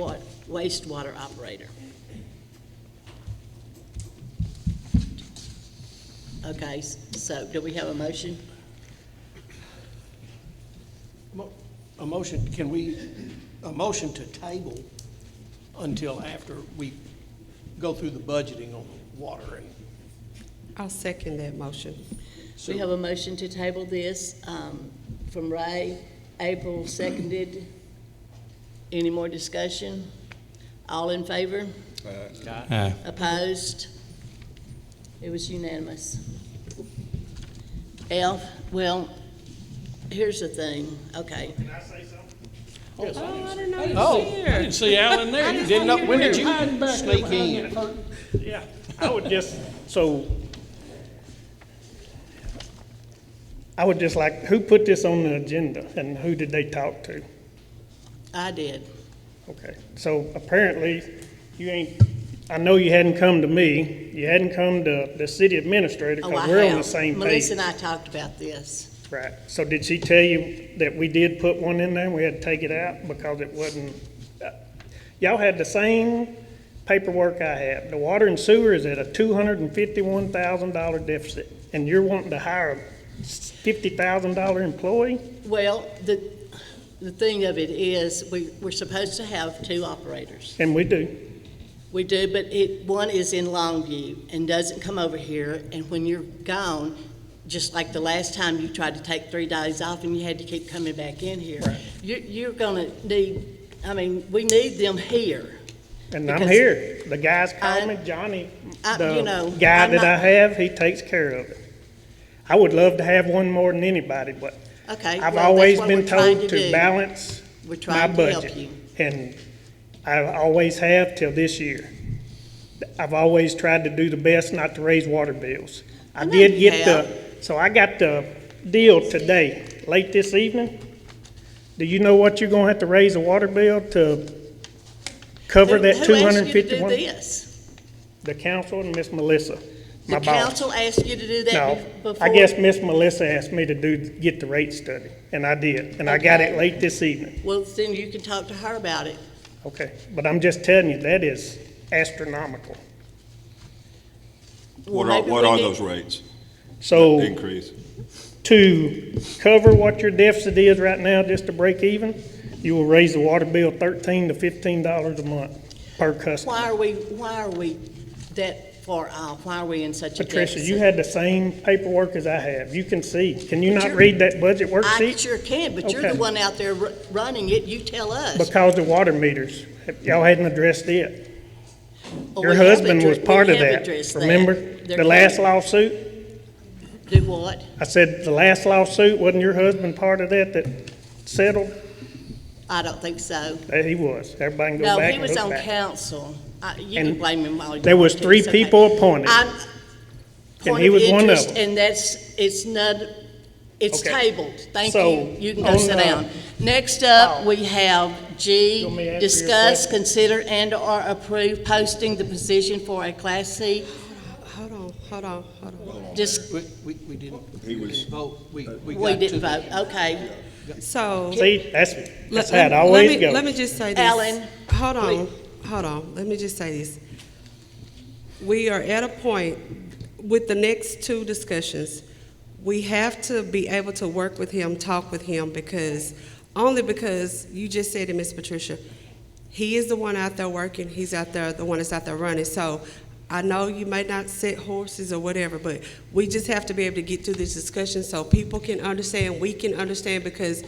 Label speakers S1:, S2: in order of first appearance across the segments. S1: wa- wastewater operator. Okay, s- so do we have a motion?
S2: Mo- A motion, can we, a motion to table until after we go through the budgeting on water and
S3: I'll second that motion.
S1: We
S2: sewer?
S1: have a motion to table this um, from Ray. April seconded. Any more discussion? All in favor?
S4: Aye.
S1: Opposed? It was unanimous. Elf, well, here's the thing, okay.
S3: Oh, I didn't know you
S2: Oh, I
S3: were here.
S2: didn't see Alan there. You didn't know, when did you sneak in?
S5: Yeah, I would just, so, I would just like, who put this on the agenda and who did they talk to?
S1: I did.
S5: Okay, so apparently, you ain't, I know you hadn't come to me, you hadn't come to the city administrator,
S1: Oh, I
S5: because we're on the
S1: have.
S5: same
S1: Melissa
S5: page.
S1: and I talked about this.
S5: Right, so did she tell you that we did put one in there, and we had to take it out because it wasn't, uh, y'all had the same paperwork I had. The water and sewer is at a two hundred and fifty-one thousand dollar deficit, and you're wanting to hire a fifty thousand dollar employee?
S1: Well, the, the thing of it is, we, we're supposed to have two operators.
S5: And we do.
S1: We do, but it, one is in Longview and doesn't come over here, and when you're gone, just like the last time you tried to take three days off and you had to keep coming back in here. You're, you're gonna need, I mean, we need them here.
S5: And I'm
S1: Because-
S5: here. The guys
S1: I-
S5: call me Johnny,
S1: I- you know,
S5: the guy
S1: I'm
S5: that I
S1: not-
S5: have, he takes care of it. I would love to have one more than anybody, but
S1: Okay. well,
S5: I've
S1: that's
S5: always
S1: what
S5: been
S1: we're trying
S5: told
S1: do.
S5: to balance
S1: We're
S5: my
S1: trying to help
S5: budget.
S1: you.
S5: And I always have till this year. I've always tried to do the best not to raise water bills.
S1: I
S5: I
S1: know
S5: did
S1: you
S5: get the, so I got the deal today, late this evening. Do you know what you're gonna have to raise a water bill to cover
S1: Who-
S5: that two
S1: Who
S5: hundred and
S1: asked you to do
S5: fifty-one?
S1: this?
S5: The council and Miss Melissa, my
S1: The
S5: boss.
S1: council asked you to do that
S5: No,
S1: be- before?
S5: I guess Miss Melissa asked me to do, get the rate study, and I did, and I got
S1: Okay.
S5: it late this evening.
S1: Well, then you can talk to her about it.
S5: Okay, but I'm just telling you, that is astronomical.
S1: Well,
S6: What are,
S1: maybe
S6: what
S1: we
S6: are
S1: need-
S6: those rates
S5: So
S6: increase?
S5: to cover what your deficit is right now, just to break even, you will raise the water bill thirteen to fifteen dollars a month per customer.
S1: Why are we, why are we that far off? Why are we in such a deficit?
S5: Patricia, you had the same paperwork as I have. You can see. Can you
S1: But
S5: not
S1: you're-
S5: read that budget
S1: I
S5: worksheet?
S1: sure can, but you're the
S5: Okay.
S1: one out there ru- running it, you tell us.
S5: Because the water meters, y'all hadn't addressed it.
S1: Well,
S5: Your
S1: we have
S5: husband
S1: addre-
S5: was part of
S1: we have
S5: that,
S1: addressed
S5: remember?
S1: They're
S5: The last lawsuit?
S1: Do what?
S5: I said, the last lawsuit, wasn't your husband part of that that settled?
S1: I don't think so.
S5: Uh, He was. Everybody can go
S1: No,
S5: back
S1: he
S5: and
S1: was
S5: look
S1: on
S5: back.
S1: council. I- You can
S5: And
S1: blame him all you
S5: there was
S1: want to,
S5: three
S1: it's okay.
S5: people appointed,
S1: I'm-
S5: and
S1: point
S5: he was one of
S1: interest,
S5: them.
S1: And that's, it's not, it's
S5: Okay.
S1: tabled. Thank
S5: So,
S1: you. You can go
S5: on
S1: sit
S5: the-
S1: down. Next up,
S5: Oh.
S1: we have G,
S5: You want me to answer your
S1: discuss,
S5: question?
S1: consider, and/or approve posting the position for a Class C.
S3: Hold on, hold on, hold
S1: Dis-
S2: We, we, we didn't, we didn't vote. We,
S1: We
S2: we got to
S1: didn't
S2: the
S1: vote, okay.
S3: on. So.
S5: See, that's,
S3: let-
S5: that's how
S3: let-
S5: it
S3: let me-
S5: always goes.
S3: Let me just say this.
S1: Alan,
S3: Hold on, hold on. Let me just say this. We are at a point with the next two discussions. We have to be able to work with him, talk with him, because, only because you just said it, Miss Patricia. He is the one out there working. He's out there, the one that's out there running. So I know you may not sit horses or whatever, but we just have to be able to get through this discussion so people can understand, we can understand, because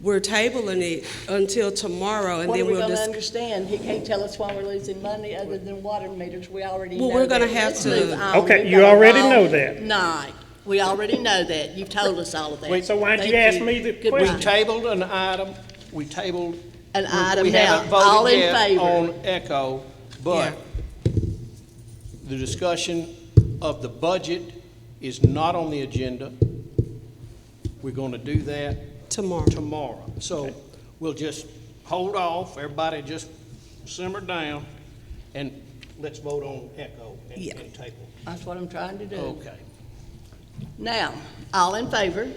S3: we're tabling it until tomorrow and
S1: What are
S3: then
S1: we
S3: we'll
S1: gonna
S3: discuss.
S1: understand? He can't tell us why we're losing money other than water meters. We already know
S3: Well, we're gonna
S1: that.
S3: have
S1: Let's
S3: to-
S1: move on.
S5: Okay,
S1: We've
S5: you
S1: got a
S5: already
S1: long
S5: know that.
S1: Night. We already know that. You've told us all of that.
S5: Wait, so why'd you
S1: Thank
S5: ask me the
S1: Goodbye.
S2: We
S5: question?
S2: tabled an item, we tabled.
S1: An
S2: we-
S1: item
S2: we
S1: now.
S2: haven't voted
S1: All in
S2: yet
S1: favor?
S2: On Echo, but the discussion of the budget is not on the agenda. We're gonna do that
S3: Tomorrow.
S2: tomorrow. So we'll just hold off, everybody just simmer down, and let's vote on Echo and
S3: Yeah.
S2: and table.
S1: That's what I'm trying to do.
S2: Okay.
S1: Now, all in favor?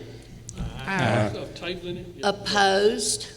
S3: All right.
S1: Opposed?